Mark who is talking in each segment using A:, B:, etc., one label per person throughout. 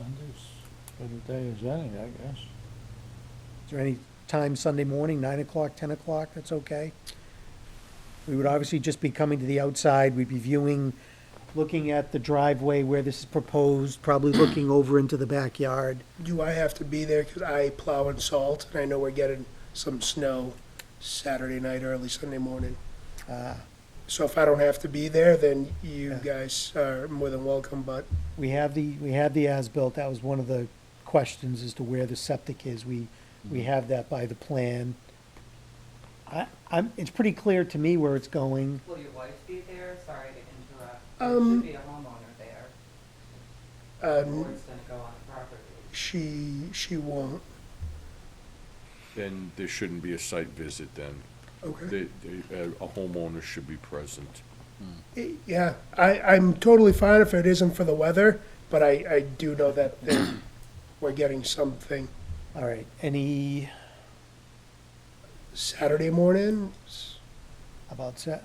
A: Sunday's good a day as any, I guess.
B: Is there any time Sunday morning, nine o'clock, ten o'clock, that's okay? We would obviously just be coming to the outside, we'd be viewing, looking at the driveway where this is proposed, probably looking over into the backyard.
C: Do I have to be there? Because I plow and salt, and I know we're getting some snow Saturday night, early Sunday morning.
B: Uh,
C: So if I don't have to be there, then
B: Yeah.
C: you guys are more than welcome, but
B: We have the, we have the as-built, that was one of the questions as to where the septic is, we, we have that by the plan. I, I'm, it's pretty clear to me where it's going.
D: Will your wife be there? Sorry to interrupt. There
C: Um,
D: should be a homeowner there. The
C: um,
D: board's gonna go on the property.
C: she, she won't.
E: Then there shouldn't be a site visit then.
C: Okay.
E: The- the, uh, A homeowner should be present.
C: Yeah, I, I'm totally fine if it isn't for the weather, but I, I do know that that we're getting something
B: All right, any,
C: Saturday morning.
B: about, Sa-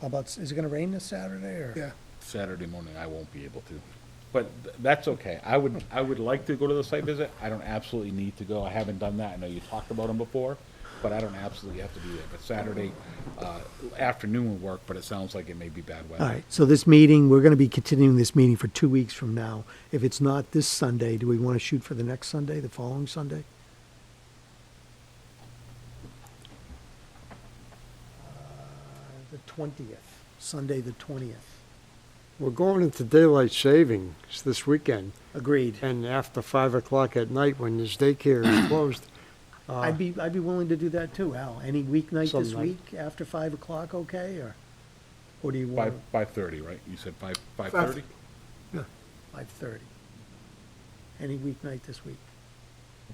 B: about, is it gonna rain this Saturday, or?
C: Yeah.
F: Saturday morning, I won't be able to. But th- that's okay. I would, I would like to go to the site visit. I don't absolutely need to go. I haven't done that. I know you talked about them before, but I don't absolutely have to be there. But Saturday, uh, afternoon would work, but it sounds like it may be bad weather.
B: All right, so this meeting, we're going to be continuing this meeting for two weeks from now. If it's not this Sunday, do we want to shoot for the next Sunday, the following Sunday? Uh, The twentieth, Sunday, the twentieth.
G: We're going into daylight savings this weekend,
B: Agreed.
G: and after five o'clock at night when this daycare is closed,
B: I'd be, I'd be willing to do that too, Al. Any weeknight
G: Some
B: this
G: night.
B: week after five o'clock, okay, or, or do you
F: Five,
B: want
F: five thirty, right? You said five, five thirty?
B: five thirty? Any weeknight this week,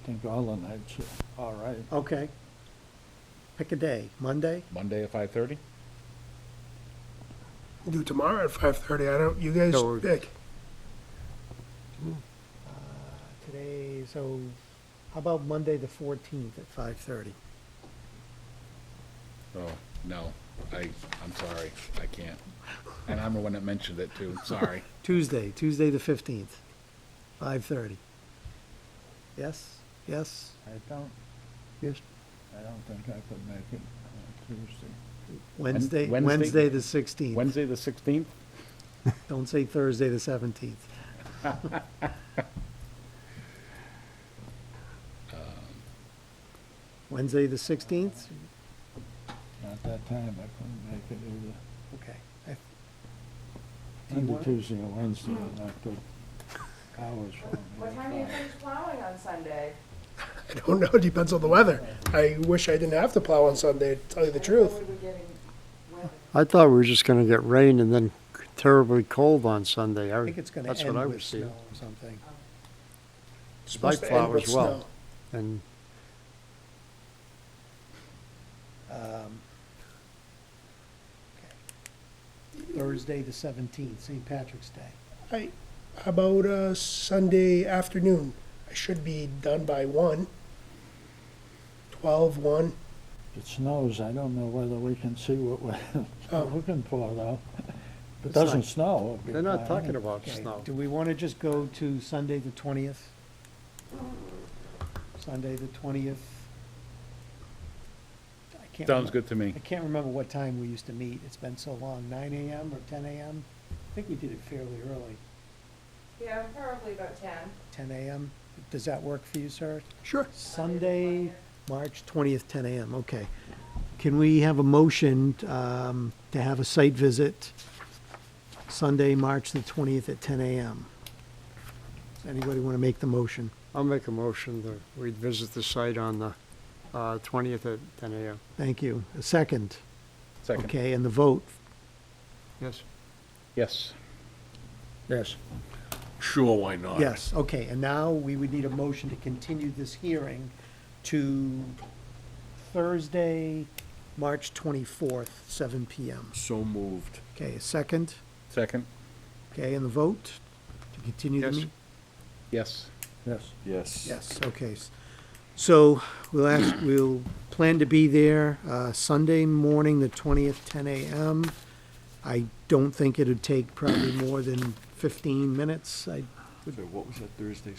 A: I think all the nights are all right.
B: okay? Pick a day, Monday?
F: Monday at five thirty?
C: Do tomorrow at five thirty. I don't, you guys
G: No, we're-
C: pick.
B: Today, so how about Monday, the fourteenth at five thirty?
F: Oh, no. I, I'm sorry. I can't. And I'm the one that mentioned it too. Sorry.
B: Tuesday, Tuesday, the fifteenth, five thirty. Yes, yes,
A: I don't,
B: yes.
A: I don't think I could make it on Tuesday.
B: Wednesday,
F: Wednesday?
B: Wednesday, the sixteenth.
F: Wednesday, the sixteenth?
B: Don't say Thursday, the seventeenth. Wednesday, the sixteenth?
A: At that time, I couldn't make it either.
B: Okay. I- Do you
A: Monday,
B: want-
A: Tuesday, or Wednesday are not good hours for me.
D: What time do you finish plowing on Sunday?
C: I don't know. It depends on the weather. I wish I didn't have to plow on Sunday, to tell you the truth.
D: What are we getting weather?
G: I thought we were just gonna get rain and then terribly cold on Sunday.
B: I think it's gonna
G: That's what I
B: end
G: was
B: with snow
G: seeing.
B: or something.
C: It's supposed
G: Night
C: to end
G: plow
C: with
G: as well.
C: snow.
G: And
B: Um, okay. Thursday, the seventeenth, St. Patrick's Day.
C: I, how about uh, Sunday afternoon? I should be done by one. Twelve, one.
A: If it snows, I don't know whether we can see what
C: Oh.
A: we're looking for, though. If it
G: It's not-
A: doesn't snow. it'd be
G: they're
A: fine.
G: not talking about
B: Okay,
G: snow.
B: do we want to just go to Sunday, the twentieth? Sunday, the twentieth?
F: Sounds good to me.
B: I can't remember what time we used to meet. It's been so long, nine AM or ten AM? I think we did it fairly early,
D: Yeah, probably about ten.
B: ten AM. Does that work for you, sir?
C: Sure.
B: Sunday, March 20th, 10 a.m., okay. Can we have a motion um, to have a site visit Sunday, March the 20th at 10 a.m.? Does Anybody want to make the motion?
G: I'll make a motion that we visit the site on the, uh, twentieth at ten AM.
B: Thank you. A second?
F: Second.
B: Okay, and the vote?
G: Yes?
F: Yes.
G: Yes.
E: Sure, why not?
B: Yes, okay, and now we would need a motion to continue this hearing to Thursday, March 24th, 7 p.m.
E: So moved.
B: Okay, a second?
F: Second.
B: Okay, and the vote to continue the
G: Yes.
B: meeting?
F: Yes.
A: Yes.
E: Yes.
B: Yes, okay. So we'll ask, we'll plan to be there uh, Sunday morning, the 20th, 10 a.m. I don't think it'd take probably more than 15 minutes. I
E: So what was that Thursday,